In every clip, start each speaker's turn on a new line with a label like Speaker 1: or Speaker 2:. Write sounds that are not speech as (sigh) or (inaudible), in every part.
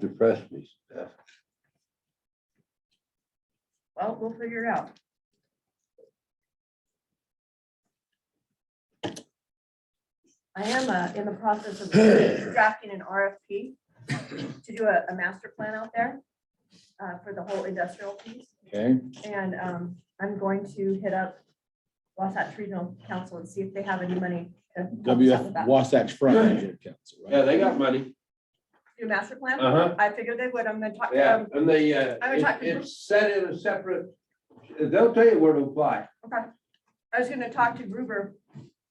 Speaker 1: depressed me. Steph.
Speaker 2: Well, we'll figure it out. I am uh, in the
Speaker 3: (coughs)
Speaker 2: process of drafting an RFP to do a, a master plan out there uh, for the whole industrial piece.
Speaker 1: Okay,
Speaker 2: And um, I'm going to hit up Wasatch Regional Council and see if they have any money. to help us out with
Speaker 4: WF
Speaker 2: that.
Speaker 4: Wasatch Front Regional Council,
Speaker 3: Yeah,
Speaker 4: right?
Speaker 3: they got money.
Speaker 2: Do a master plan?
Speaker 3: Uh-huh.
Speaker 2: I figured they would. I'm gonna talk um, to
Speaker 3: Yeah,
Speaker 2: them.
Speaker 3: and they, uh,
Speaker 2: I was
Speaker 3: it-
Speaker 2: talking-
Speaker 3: it's set in a separate, they'll tell you where to apply.
Speaker 2: Okay. I was gonna talk to Gruber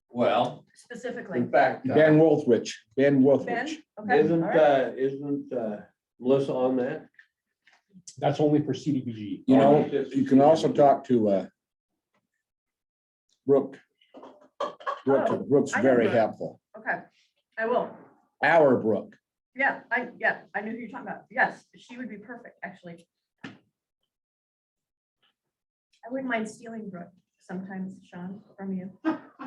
Speaker 3: Well.
Speaker 2: specifically.
Speaker 3: In fact, uh,
Speaker 4: Ben Wolfrich, Ben
Speaker 2: Ben,
Speaker 4: Wolfrich.
Speaker 2: okay. all
Speaker 3: isn't,
Speaker 2: right.
Speaker 3: uh, isn't, uh, Melissa on that?
Speaker 5: That's only for CDBG.
Speaker 4: You know, you can also talk to, uh, Brooke. Brooke, Brooke's
Speaker 2: Oh, I know
Speaker 4: very
Speaker 2: Brooke.
Speaker 4: helpful.
Speaker 2: Okay, I will.
Speaker 4: Our Brooke.
Speaker 2: Yeah, I, yeah, I knew who you're talking about. Yes, she would be perfect, actually. I wouldn't mind stealing Brooke sometimes, Sean, from you.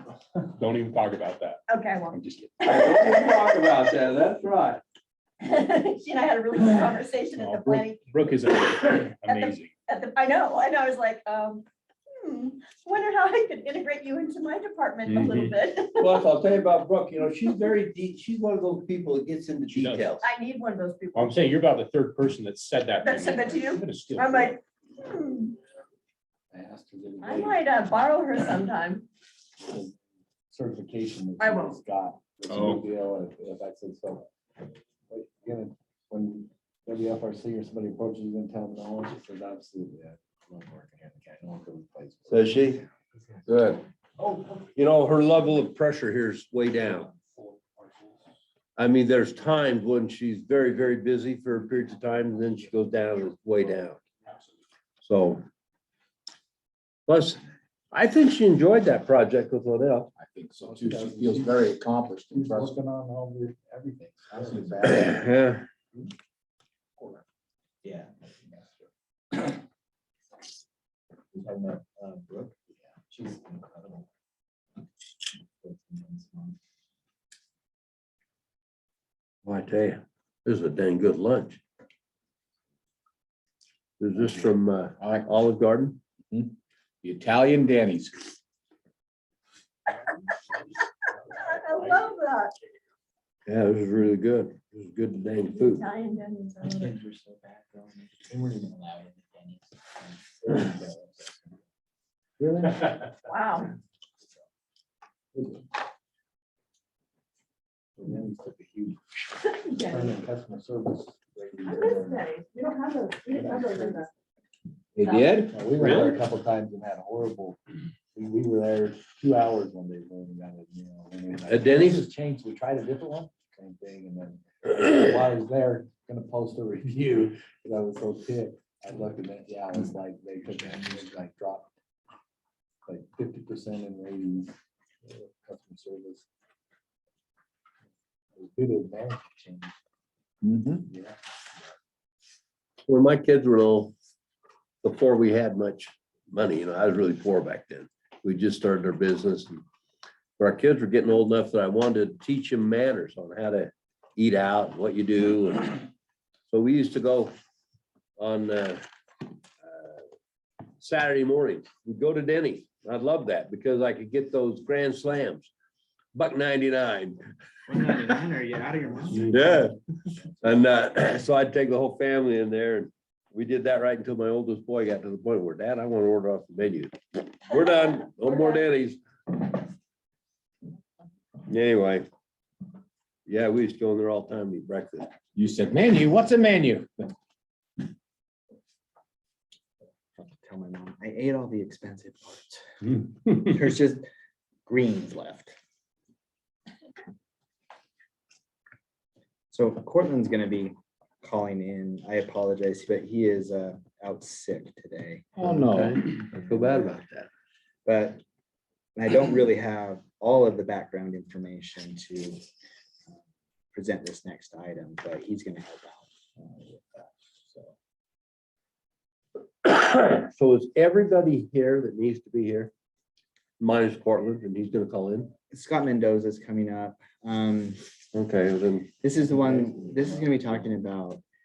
Speaker 5: (laughs) Don't even talk about that.
Speaker 2: Okay, I won't.
Speaker 5: I'm
Speaker 2: (laughs)
Speaker 5: just kidding.
Speaker 3: We'll Talk about that, that's right.
Speaker 2: She and I had a really good conversation at
Speaker 5: No,
Speaker 2: the
Speaker 5: Oh, Brooke-
Speaker 2: planning,
Speaker 5: Brooke is amazing. amazing.
Speaker 2: at the, I know, and I was like, um, hmm, wonder how I could integrate you into my department a little
Speaker 5: Mm-hmm.
Speaker 2: bit. (laughs)
Speaker 3: Plus, I'll tell you about Brooke, you know, she's very deep, she's one of those people that gets into
Speaker 5: She does.
Speaker 3: details.
Speaker 2: I need one of those people.
Speaker 5: I'm saying you're about the third person that said that.
Speaker 2: That said that to you?
Speaker 5: I'm gonna steal
Speaker 2: I
Speaker 5: Brooke.
Speaker 2: might, hmm, I might uh, borrow her sometime.
Speaker 6: certification.
Speaker 2: I
Speaker 6: that
Speaker 2: won't.
Speaker 6: she's Got. It's a
Speaker 4: Oh.
Speaker 6: big deal if- if I said so. But, you know, When WFRC or somebody approaches you in town, no one just says absolutely. I love working here in the county. I want to go to the place."
Speaker 1: so she, good.
Speaker 6: Oh.
Speaker 1: You know, her level of pressure here is way down. I mean, there's times when she's very, very busy for periods of time, and then she goes down, and it's way down. So. Plus, I think she enjoyed that project with Liddell. (clears throat)
Speaker 4: I think so too. She feels very accomplished and
Speaker 6: She's
Speaker 4: trusted.
Speaker 6: working on all the, everything. Absolutely.
Speaker 1: Yeah.
Speaker 6: Yeah. I met uh, Brooke. She's incredible.
Speaker 1: Well, I tell you, this is a dang good lunch. Is this from uh,
Speaker 4: I like
Speaker 1: Olive Garden?
Speaker 4: the Italian Danny's.
Speaker 2: I love that.
Speaker 1: Yeah, this is really good. This is good dang food.
Speaker 2: Italian Denny's, I
Speaker 6: My
Speaker 2: love it.
Speaker 6: kids were so bad growing up. They weren't even allowed in the Denny's.
Speaker 1: Really?
Speaker 2: Wow. (laughs)
Speaker 6: The Denny's took a huge turn
Speaker 2: Denny's.
Speaker 6: in customer service.
Speaker 2: I miss Denny's. We don't have those, we didn't have those in the.
Speaker 4: They did?
Speaker 6: Yeah, We were there a couple times and had horrible, we, we were there two hours one day. when we got it, you know, and we were like,
Speaker 1: At Denny's?
Speaker 6: "This has Changed, we tried a different one, same thing, and
Speaker 1: (clears throat)
Speaker 6: then while I was there, gonna post a review, because I was so ticked. I looked at it, yeah, it was like, they took it and it, like dropped like fifty percent in ratings, uh, customer service. It was Due to management change,
Speaker 4: Mhm.
Speaker 6: yeah.
Speaker 1: When my kids were little, before we had much money, you know, I was really poor back then. We just started our business. and Our kids were getting old enough that I wanted to teach them manners on how to eat out, what you do. and So we used to go on uh, uh, Saturday mornings. We'd go to Denny's. I loved that because I could get those grand slams. Buck ninety-nine.
Speaker 7: One ninety-nine, are you out of your mind?
Speaker 1: Yeah. And uh, (clears throat) so I'd take the whole family in there and we did that right until my oldest boy got to the point where, Dad, I want to order off the menu. We're done. No more daddies. Anyway. Yeah, we used to go in there all the time to eat breakfast.
Speaker 4: You said menu, what's a menu?
Speaker 7: Tell my mom, I ate all the expensive parts.
Speaker 1: Hmm.
Speaker 4: Well,
Speaker 7: There's just greens left. So Cortland's gonna be calling in. I apologize, but he is uh out sick today.
Speaker 4: no.
Speaker 1: Oh, I feel bad about that.
Speaker 7: But I don't really have all of the background information to uh, present this next item, but he's gonna help out. uh, with that. So
Speaker 1: (clears throat) So is everybody here that needs to be here? Minus Portland and he's gonna call in.
Speaker 7: Scott Mendoza's coming up. Um,
Speaker 1: Okay, then
Speaker 7: This is the one, this is gonna be talking about